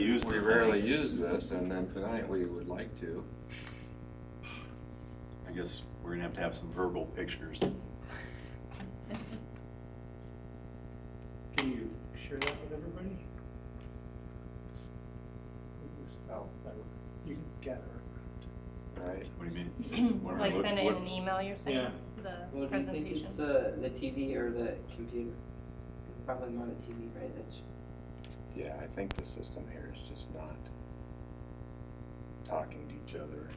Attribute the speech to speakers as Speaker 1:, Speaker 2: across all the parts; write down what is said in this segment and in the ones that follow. Speaker 1: usually rarely use this, and then tonight we would like to.
Speaker 2: I guess we're gonna have to have some verbal pictures.
Speaker 3: Can you share that with everybody? Oh, that would- You can gather.
Speaker 1: Right.
Speaker 2: What do you mean? What are-
Speaker 4: Like
Speaker 2: what-
Speaker 4: send it in
Speaker 2: what-
Speaker 4: an email, you're saying, the
Speaker 5: What do you think
Speaker 4: presentation?
Speaker 5: it's, uh, the TV or the computer? Probably more the TV, right, that's,
Speaker 1: Yeah, I think the system here is just not talking to each other.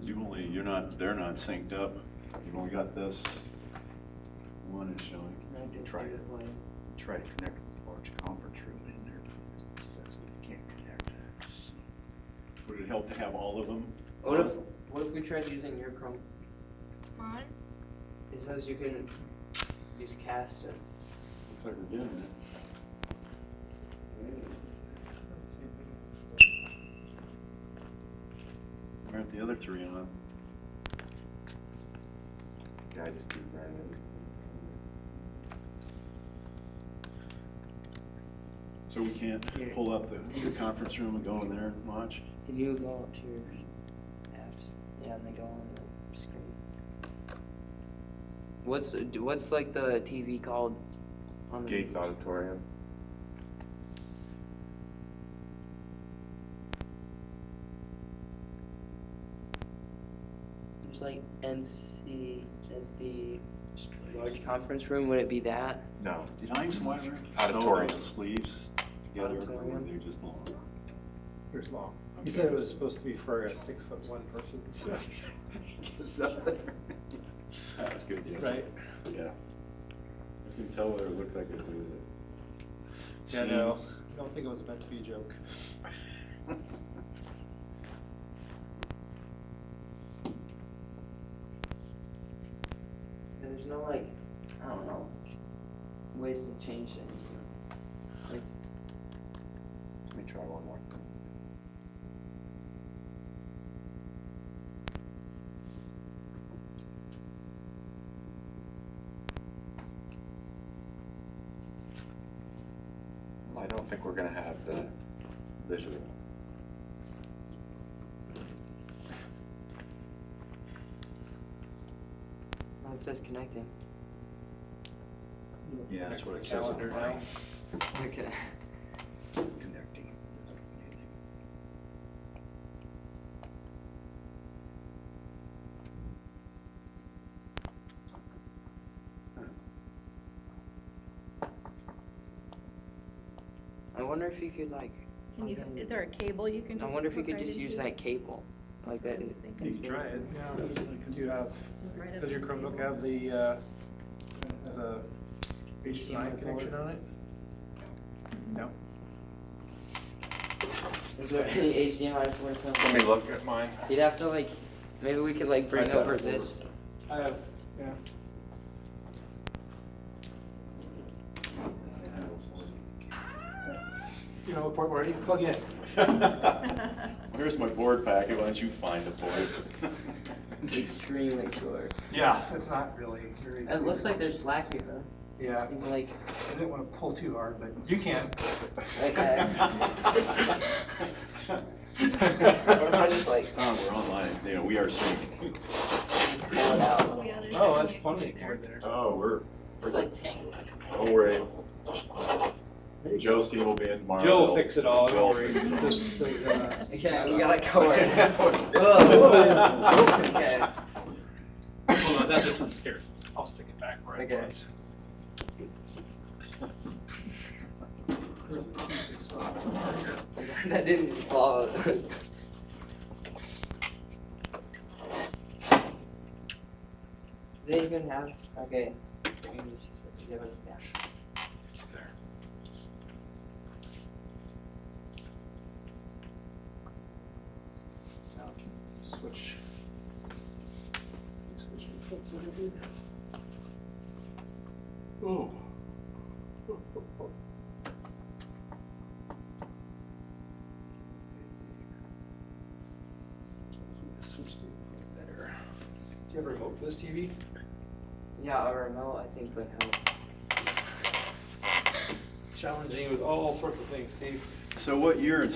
Speaker 2: You only, you're not, they're not synced up. You've only got this one is showing.
Speaker 5: I did
Speaker 6: Try
Speaker 5: do
Speaker 6: it.
Speaker 5: it like,
Speaker 6: try to connect with the large conference room in there, but it says we can't connect.
Speaker 2: Would it help to have all of them?
Speaker 5: what if, what if we tried using your Chrome?
Speaker 7: Mine?
Speaker 5: It says you can use cast it.
Speaker 2: Looks like we're doing it. Why aren't the other three on?
Speaker 1: Yeah, I just do random.
Speaker 2: So we can't pull up the, the conference room and go in there and watch?
Speaker 5: Can you go up to your apps? Yeah, and they go on the screen. What's, do- what's like the TV called? on the-
Speaker 1: Gates Auditorium.
Speaker 5: There's like NCSD, large conference room, would it be that?
Speaker 1: No,
Speaker 2: Did I see why we're
Speaker 1: Auditorium.
Speaker 2: sewing sleeves together, or were
Speaker 5: Auditorium.
Speaker 2: they just long?
Speaker 3: Here's long.
Speaker 2: Okay.
Speaker 3: You said it was supposed to be for a six foot one person, so-
Speaker 2: It's up there. That's good, yes.
Speaker 3: right?
Speaker 2: Yeah. I can tell what it looked like if it was a.
Speaker 3: Yeah, no, I don't think it was meant to be a joke.
Speaker 5: And there's no like, I don't know, ways to change things.
Speaker 1: let me try one more thing. Well, I don't think we're gonna have the visual.
Speaker 5: Well, It says connecting.
Speaker 2: Yeah, that's what it says on
Speaker 3: Calendar
Speaker 2: mine.
Speaker 3: now.
Speaker 5: Okay.
Speaker 6: Connecting.
Speaker 5: I wonder if you could like,
Speaker 7: Can you,
Speaker 5: Okay.
Speaker 7: is there a cable you can
Speaker 5: I
Speaker 7: just?
Speaker 5: wonder if you
Speaker 7: hook
Speaker 5: could
Speaker 7: right
Speaker 5: just
Speaker 7: into?
Speaker 5: use that cable, like
Speaker 7: That's what
Speaker 5: that.
Speaker 7: I was
Speaker 5: is-
Speaker 7: thinking.
Speaker 3: You can try it. Do you have,
Speaker 7: Right up
Speaker 3: does your
Speaker 7: to the
Speaker 3: Chromebook
Speaker 7: cable.
Speaker 3: have the, uh, have a HDMI connection on it? No.
Speaker 5: Is there any HDMI for
Speaker 1: Let me
Speaker 5: something?
Speaker 1: look at mine.
Speaker 5: You'd have to like, maybe we could like bring
Speaker 1: Right, that'll
Speaker 5: over
Speaker 1: work.
Speaker 5: this.
Speaker 3: I have, yeah. You know, the part where you plug in.
Speaker 2: Here's my board packet, why don't you find a board?
Speaker 5: Extremely short.
Speaker 3: Yeah. It's not really very.
Speaker 5: It looks like there's slack here, huh?
Speaker 3: Yeah,
Speaker 5: Seem Like,
Speaker 3: I didn't want to pull too hard, but you can.
Speaker 5: like, uh, what if I just like
Speaker 2: Tom, we're online, yeah, we are streaming.
Speaker 5: pull it out?
Speaker 7: Yeah, there's
Speaker 3: Oh,
Speaker 7: that.
Speaker 3: that's plenty of cord there.
Speaker 2: Oh, we're,
Speaker 5: It's like tangled.
Speaker 2: don't worry. Joe Steve will be in tomorrow.
Speaker 3: Joe will fix it all,
Speaker 2: Joe will
Speaker 3: don't worry.
Speaker 2: fix it all.
Speaker 3: Just- there's, uh,
Speaker 5: Okay, we gotta cover.
Speaker 3: Oh,
Speaker 5: Okay.
Speaker 3: Hold on, that, this one's here. I'll stick it back where
Speaker 5: Okay.
Speaker 3: it was. Where's the adhesive spot? Somewhere here.
Speaker 5: that didn't follow. they even have okay. I'm just- yeah, but- yeah.
Speaker 3: Switch. Switch your foots a little bit.
Speaker 2: Oh.
Speaker 3: Switch to better. Do you have a remote for this TV?
Speaker 5: Yeah, a remote I think would help.
Speaker 3: Challenging with all sorts of things, Steve.
Speaker 2: So what year and